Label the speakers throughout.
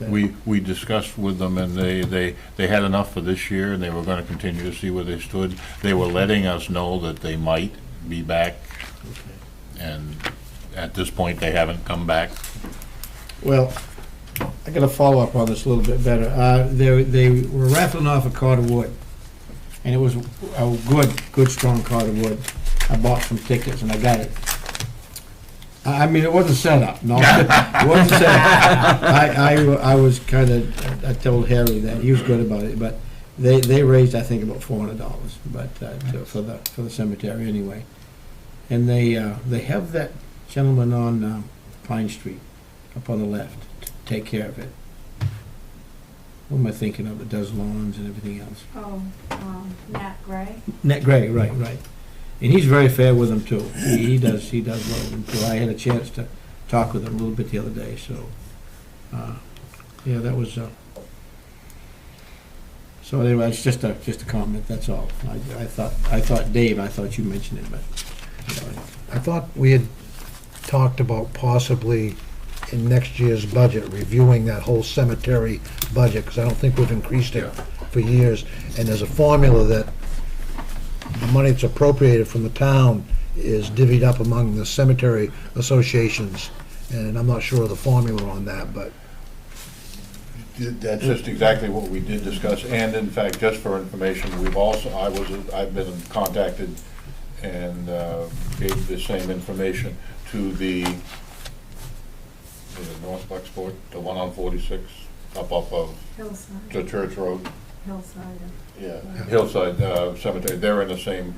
Speaker 1: understand.
Speaker 2: we, we discussed with them, and they, they, they had enough for this year, and they were gonna continue to see where they stood. They were letting us know that they might be back, and at this point, they haven't come back.
Speaker 1: Well, I gotta follow up on this a little bit better. Uh, they, they were raffling off a cord of wood, and it was a good, good, strong cord of wood. I bought some tickets and I got it. I I mean, it wasn't set up, no, it wasn't set up. I, I, I was kinda, I told Harry that, he was good about it, but they, they raised, I think, about four hundred dollars, but, uh, to- for the, for the cemetery anyway. And they, uh, they have that gentleman on, uh, Pine Street up on the left to take care of it. What am I thinking of? It does lawns and everything else.
Speaker 3: Oh, um, Matt Gray?
Speaker 1: Nat Gray, right, right. And he's very fair with them too. He he does, he does love them too. I had a chance to talk with him a little bit the other day, so, uh, yeah, that was, uh, so anyway, it's just a, just a comment, that's all. I, I thought, I thought, Dave, I thought you mentioned it, but, you know,
Speaker 4: I thought we had talked about possibly in next year's budget, reviewing that whole cemetery budget, because I don't think we've increased it for years. And there's a formula that the money that's appropriated from the town is divvied up among the cemetery associations. And I'm not sure of the formula on that, but
Speaker 2: That's just exactly what we did discuss, and in fact, just for information, we've also, I was, I've been contacted and uh, gave the same information to the, was it North Bucksport, the one on 46, up off of the
Speaker 3: Hillside,
Speaker 2: Church Road,
Speaker 3: Hillside. uh,
Speaker 2: yeah, Hillside uh, Cemetery, they're in the same,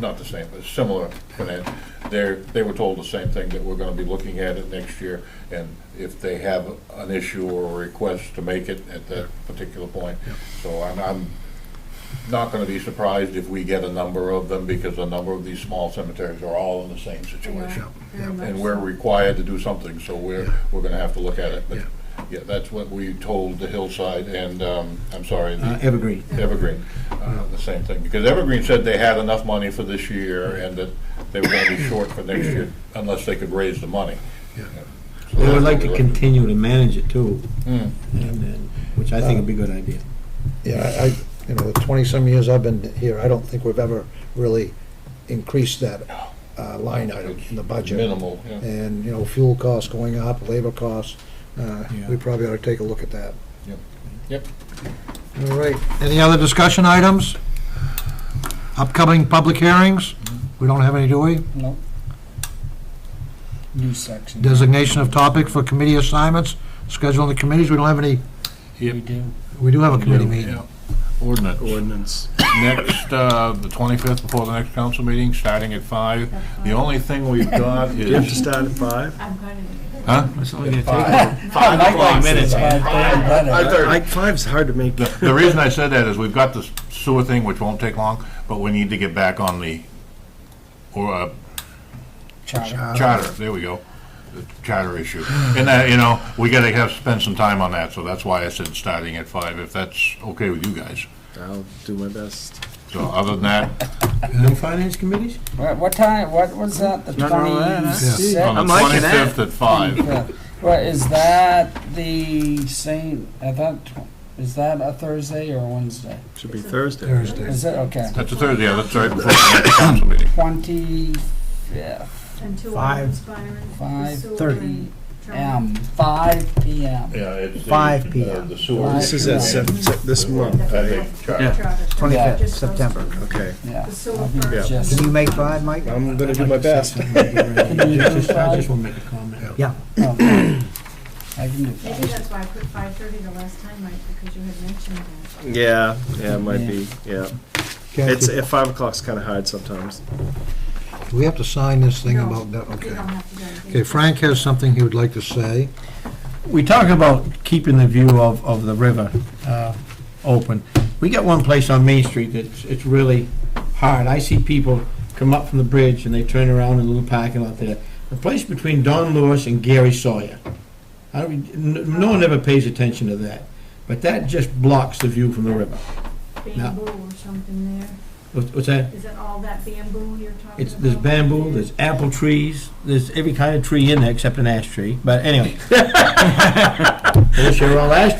Speaker 2: not the same, but similar, plan. they're, they were told the same thing, that we're gonna be looking at it next year, and if they have an issue or a request to make it at that particular point. So I'm, I'm not gonna be surprised if we get a number of them, because a number of these small cemeteries are all in the same situation.
Speaker 3: Very much
Speaker 2: And we're
Speaker 3: so.
Speaker 2: required to do something, so we're,
Speaker 4: Yeah.
Speaker 2: we're gonna have to look at it. But, yeah, that's what we told the Hillside and, um, I'm sorry, the
Speaker 1: uh, Evergreen.
Speaker 2: Evergreen, uh, the same thing, because Evergreen said they had enough money for this year and that they were gonna be short for next year unless they could raise the money.
Speaker 4: Yeah.
Speaker 2: So
Speaker 1: They would
Speaker 2: that's
Speaker 1: like
Speaker 2: what
Speaker 1: to
Speaker 2: we-
Speaker 1: continue to manage it too,
Speaker 2: Hmm.
Speaker 1: and, and, which I think would be a good idea.
Speaker 4: Yeah, I, I- you know, the twenty-some years I've been here, I don't think we've ever really increased that uh, line item in the budget.
Speaker 2: Minimal, yeah.
Speaker 4: And, you know, fuel costs going up, labor costs, uh,
Speaker 1: Yeah.
Speaker 4: we probably ought to take a look at that.
Speaker 2: Yep. Yep.
Speaker 4: All right, any other discussion items? Upcoming public hearings? We don't have any, do we?
Speaker 5: No. New section.
Speaker 4: Designation of topic for committee assignments, scheduling the committees, we don't have any,
Speaker 5: We do.
Speaker 4: we do have a committee
Speaker 2: Yeah.
Speaker 4: meeting.
Speaker 2: Ordinance.
Speaker 5: Ordinance.
Speaker 2: Next, uh, the twenty-fifth before the next council meeting, starting at five. The only thing we've got
Speaker 5: You have to
Speaker 2: is,
Speaker 5: start at five?
Speaker 3: I'm going to.
Speaker 2: huh?
Speaker 5: Five o'clock minutes.
Speaker 2: Five thirty.
Speaker 5: Like, five's hard to make.
Speaker 2: The the reason I said that is we've got this sewer thing, which won't take long, but we need to get back on the, or, uh, Charter, there we go. The Charter issue. And that, you know, we gotta have, spend some time on that, so that's why I said starting at five, if that's okay with you guys.
Speaker 5: I'll do my best.
Speaker 2: So other than that,
Speaker 1: No finance committees?
Speaker 6: What, what time, what was that, the
Speaker 5: Nothing wrong with that, huh?
Speaker 6: twenty-sixth?
Speaker 2: on the
Speaker 5: liking that.
Speaker 2: twenty-fifth at five,
Speaker 6: What, is that the same, I thought, tw- is that a Thursday or a Wednesday?
Speaker 5: Should be Thursday.
Speaker 4: Thursday.
Speaker 6: Is it, okay,
Speaker 2: that's a Thursday, yeah, that's right before the next council meeting.
Speaker 6: twenty-fifth,
Speaker 3: And two
Speaker 5: Five.
Speaker 3: hours expiring.
Speaker 6: Five
Speaker 3: Sewer
Speaker 5: thirty
Speaker 3: and drum.
Speaker 6: M, um, five P M.
Speaker 2: Yeah, it's. the,
Speaker 5: Five
Speaker 2: uh,
Speaker 5: PM.
Speaker 2: The sewer.
Speaker 6: Five
Speaker 5: This is at
Speaker 6: PM.
Speaker 5: seven, se- this month, I think.
Speaker 2: Charter.
Speaker 6: Yeah.
Speaker 3: Just those two.
Speaker 5: Okay.
Speaker 6: Yeah.
Speaker 3: The sewer
Speaker 6: I'll be
Speaker 3: first.
Speaker 6: just-
Speaker 7: Can you make five, Mike?
Speaker 5: I'm gonna do my best.
Speaker 1: I just want to make a comment.
Speaker 7: Yeah.
Speaker 6: okay. I can do
Speaker 3: Maybe
Speaker 6: that.
Speaker 3: that's why I put five thirty the last time, Mike, because you had mentioned that.
Speaker 5: Yeah, yeah, it might be, yeah. It's,
Speaker 4: Kathy,
Speaker 5: at five o'clock's kinda hard sometimes.
Speaker 4: do we have to sign this thing
Speaker 3: No,
Speaker 4: about, that?
Speaker 3: You
Speaker 4: okay.
Speaker 3: don't have to do anything.
Speaker 4: Okay, Frank has something he would like to say.
Speaker 1: We talk about keeping the view of, of the river uh, open. We got one place on Main Street that's, it's really hard. I see people come up from the bridge and they turn around in a little parking lot there. The place between Don Lewis and Gary Sawyer. I don't, n- no one ever pays attention to that, but that just blocks the view from the river.
Speaker 3: Bamboo or something there.
Speaker 1: What's what's that?
Speaker 3: Is it all that bamboo you're talking about?
Speaker 1: It's, there's bamboo, there's apple trees, there's every kind of tree in there except an ash tree, but anyway. This year all ash